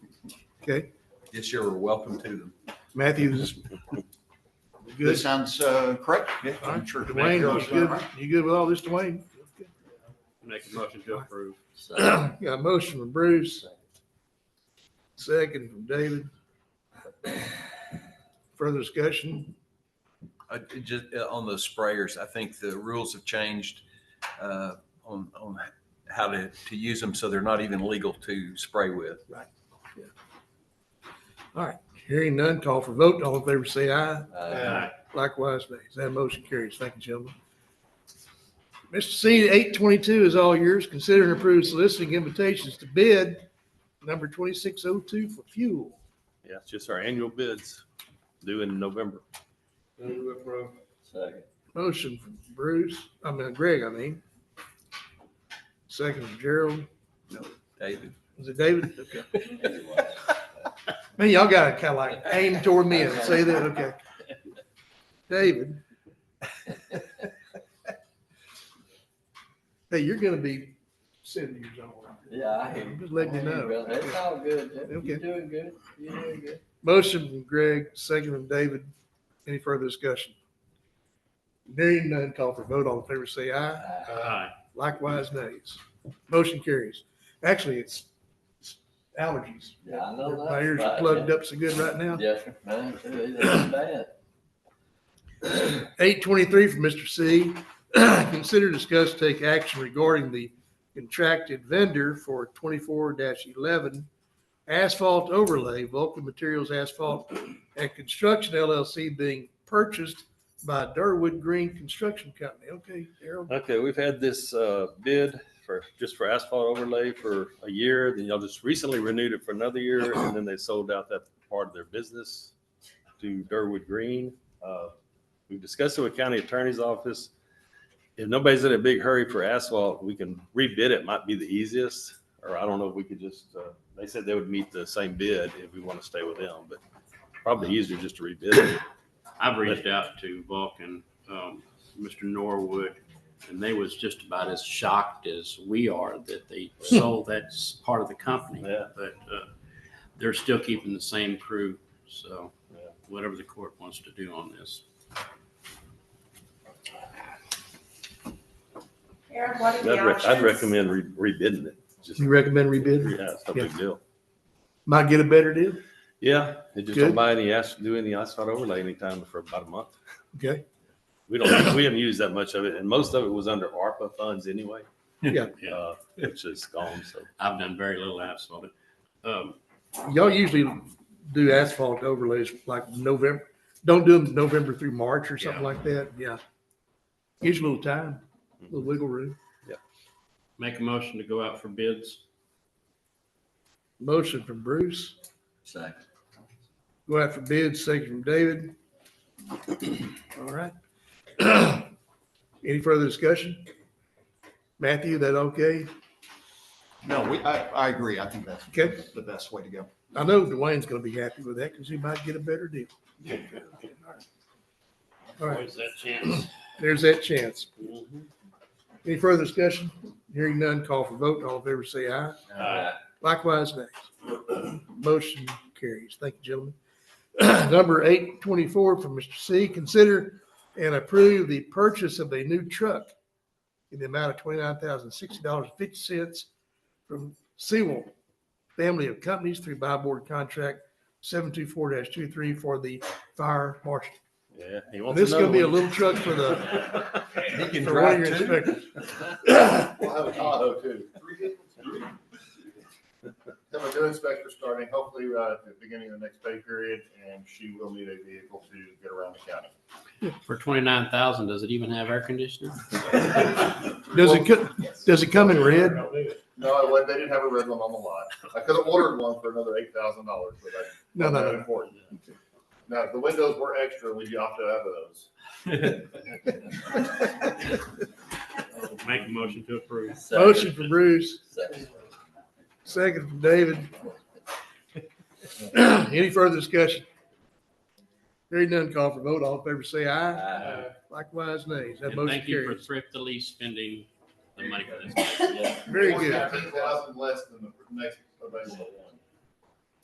Okay, Yes, you're welcome to them. Matthews. That Good. sounds uh, correct. Yeah, I'm sure. Dwayne, you good, you good with all this, Dwayne? Make a motion to approve. Got a motion from Bruce. Second from David. Further discussion? Uh, it just uh, on the sprayers, I think the rules have changed uh, on on how to to use them, so they're not even legal to spray with. All right, hearing none, call for vote. All in favor, say aye. Uh, Likewise, nay. That motion carries. Thank you, gentlemen. Mr. C, eight twenty-two is all yours. Consider and approve soliciting invitations to bid number twenty-six oh two for fuel. Yeah, it's just our annual bids due in November. Motion from Bruce, I mean Greg, I mean. Second from Gerald. David, Is it David? Okay. Man, y'all gotta kind of like aim toward me and say that, okay. David. Hey, you're gonna be seventy years old. Yeah, I hear I'm you. just letting you I hear know. brother. It's all good. Jeff. Okay. You're doing good. You're doing good. Motion from Greg, second from David. Any further discussion? Hearing none, call for vote. All in favor, say aye. Aye. Likewise, nays. Motion carries. Actually, it's it's allergies. Yeah, I know that. My ears are plugged up so good right now. Yes, sir. Mine too. It ain't bad. Eight twenty-three from Mr. C. Consider discuss take action regarding the contracted vendor for twenty-four eleven asphalt overlay, Vulcan Materials Asphalt and Construction LLC being purchased by Durwood Green Construction Company. Okay, Harold. Okay, we've had this uh, bid for, just for asphalt overlay for a year, then y'all just recently renewed it for another year, and then they sold out that part of their business to Durwood Green. Uh, We've discussed it with county attorney's office. If nobody's in a big hurry for asphalt, we can rebid it, might be the easiest, or I don't know if we could just, uh, they said they would meet the same bid if we want to stay with them, but probably easier just to rebid it. I've reached out to Vulcan, um, Mr. Norwood, and they was just about as shocked as we are that they sold that s- part of the company. Yeah. But, uh, they're still keeping the same crew, so Yeah. whatever the court wants to do on this. Aaron, what are the I'd rec- options? I'd recommend re- rebidding it. Just- You recommend rebid? Yeah, it's no big deal. Might get a better deal? Yeah, they just Good. don't buy any asphalt, do any asphalt overlay anytime for about a month. Okay. We don't, we haven't used that much of it, and most of it was under ARPA funds anyway. Yeah. Uh, Which is gone, so. I've done very little asphalt. Um, Y'all usually do asphalt overlays like November, don't do them November through March or something Yeah. like that, yeah. Gives you a little time, a little wiggle room. make a motion to go out for bids. Motion from Bruce, Second. go out for bid, second from David. All right. Any further discussion? Matthew, that okay? No, we, I, I agree. I think that's Okay. the best way to go. I know Dwayne's gonna be happy with that because he might get a better deal. All right, Always that chance. there's that chance. Mm-hmm. Any further discussion? Hearing none, call for vote. All in favor, say aye. Uh, Aye. Likewise, nay. Motion carries. Thank you, gentlemen. Number eight twenty-four from Mr. C, consider and approve the purchase of a new truck in the amount of twenty-nine thousand sixty dollars fifty cents from Sewell Family of Companies through buy board contract seven two four 23 for the fire marshal. Yeah. he And wants This is gonna be a another little truck for the, he can for one of drive your too. inspectors. We'll have a Tahoe too. Have a new inspector starting hopefully uh, at the beginning of the next pay period, and she will need a vehicle to get around the county. For twenty-nine thousand, does it even have air conditioning? Does it, co- does it come in red? No, I went, they didn't have a red one on the lot. I could have ordered one for another eight thousand dollars, but that's No, no, no, not no. important. Now, if the windows were extra, we'd have to have those. Make a motion to approve. Second. Motion for Bruce, Second. second from David. Any further discussion? Hearing none, call for vote. All in favor, say aye. Aye. Likewise, nays. That And motion thank you for carries. thriftily spending the money for this. Yeah. Very good. Fourteen thousand less than the next available one.